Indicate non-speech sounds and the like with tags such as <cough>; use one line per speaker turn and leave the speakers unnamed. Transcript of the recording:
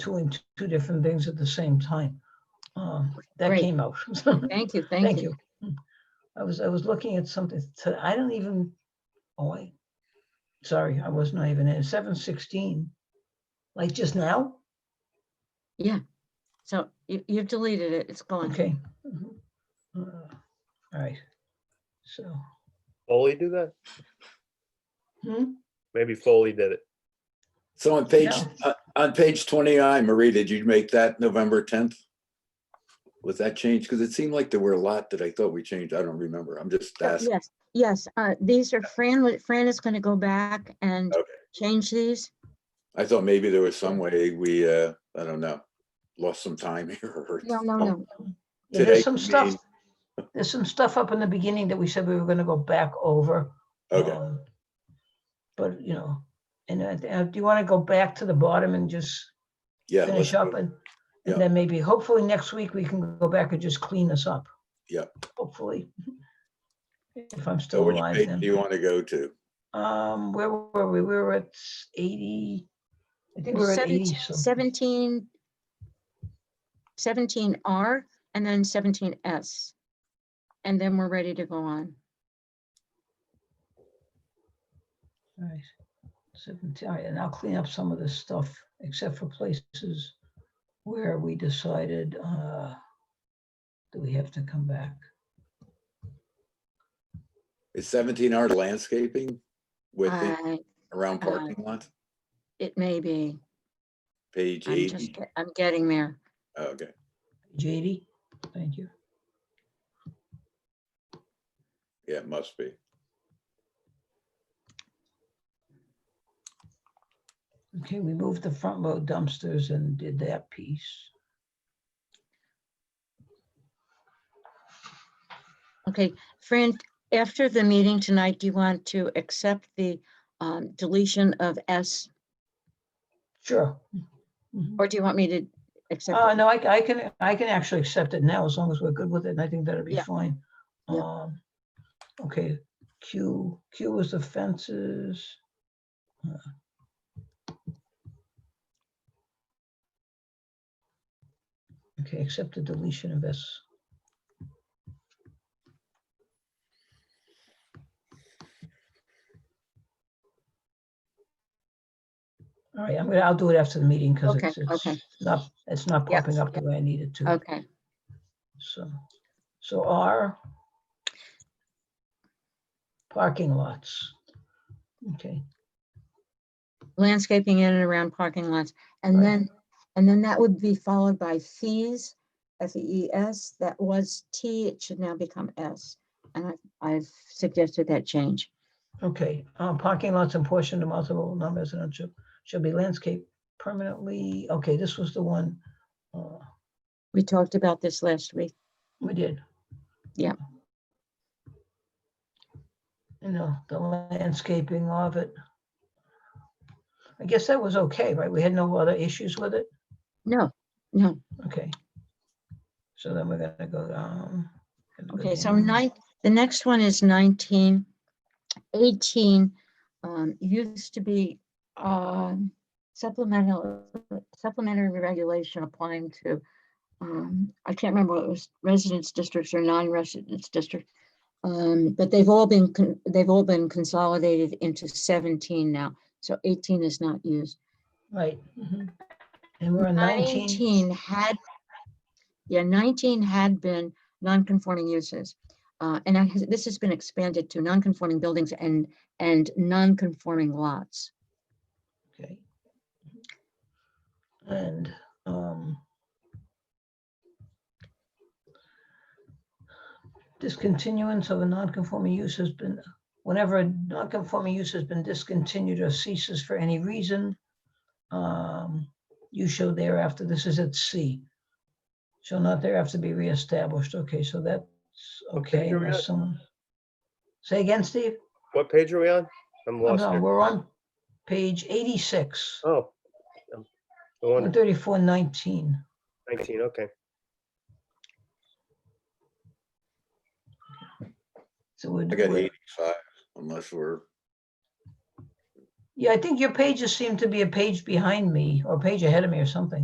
doing t- two different things at the same time. Uh, That
Great.
came out. <laughs>
Thank you,
Thank you. Hmm. I was, I was looking at something, to- I don't even, oh, I, sorry, I was not even in, seven sixteen. Like just now?
Yeah. So you, you've deleted it. It's gone.
Okay. Mhm. Uh, All right. So,
Foley do that?
hmm,
Maybe Foley did it.
So on page,
No.
uh, on page 29, Marie, did you make that November 10th? Was that changed? Because it seemed like there were a lot that I thought we changed. I don't remember. I'm just
Uh,
asking.
Yes, yes. Uh, these are Fran, wa- Fran is going to go back and
Okay.
change these.
I thought maybe there was some way we, uh, I don't know, lost some time <laughs> here. or-
No, no, no.
Oh, yeah,
Today
there's some
could
stuff, there's some stuff up in the beginning that we said we were gonna go back over.
Okay,
Um, But, you know, and I- I- do you want to go back to the bottom and just
yeah. let's
finish
do
up
it.
and,
Yeah.
and then maybe hopefully next week we can go back and just clean this up?
Yeah.
Hopefully. <laughs> If I'm
So
still
which
alive
page do
then.
you want to go to?
Um, where were we? We were at eighty. I think we were at
Seventeen-
eighty. some-
Seventeen, seventeen R and then seventeen S. And then we're ready to go on.
Right. Seventeen, all right, and I'll clean up some of this stuff, except for places where we decided, uh, that we have to come back.
Is 17 our landscaping with the
I,
around
uh,
parking lot?
it may be,
Page
E.
I'm just,
80?
get- I'm getting there.
Oh, Okay.
JD, thank you.
Yeah, it must be.
Okay, we moved the front load dumpsters and did that piece.
Okay, Fran, after the meeting tonight, do you want to accept the um, deletion of S?
Sure. Mhm.
Or do you want me to accept?
Uh,
it?
no, I, c- I can, I can actually accept it now as long as we're good with it and I think that'll be
Yeah.
fine.
Yeah.
Um, Okay, Q, Q was the fences. Uh, Okay, accept the deletion of S. All right, I'm gonna, I'll do it after the meeting because
Okay,
it's,
okay.
it's not, it's not
Yes,
popping up the
yep.
way I need it to.
Okay,
So, so R. Parking lots. Okay,
landscaping in and around parking lots. And
Right.
then, and then that would be followed by fees, F E E S, that was T, it should now become S. And I- I've suggested that change.
okay, um, parking lots and portion to multiple non-residential shall be landscaped permanently. Okay, this was the one. uh,
We talked about this last week.
We did.
Yep.
You know, the landscaping of it. I guess that was okay, right? We had no other issues with it?
No, no.
Okay. So then we're gonna go down. and go
Okay, so
down.
nine, the next one is nineteen. Eighteen, um, used to be, um, supplemental, supplementary regulation applying to, um, I can't remember what it was, residence districts or non-residence district. Um, but they've all been, con- they've all been consolidated into seventeen now, so eighteen is not used.
Right.
Mm-hmm.
mhm. And we're on nineteen.
Nineteen had, yeah, nineteen had been non-conforming uses. Uh, and I, has- this has been expanded to non-conforming buildings and, and non-conforming lots.
Okay. And, um, discontinuance of a non-conforming use has been, whenever a non-conforming use has been discontinued or ceases for any reason, um, you shall thereafter, this is at C, shall not thereafter be reestablished. Okay, so that's
Okay,
okay.
here we
unless
are.
someone- Say again, Steve?
What page are we on? I'm
Oh,
lost
No,
here.
we're on page eighty-six.
Oh. um, No wonder,
13419.
19, okay.
So we're,
I got
we're-
85 unless we're,
yeah, I think your pages seem to be a page behind me or a page ahead of me or something.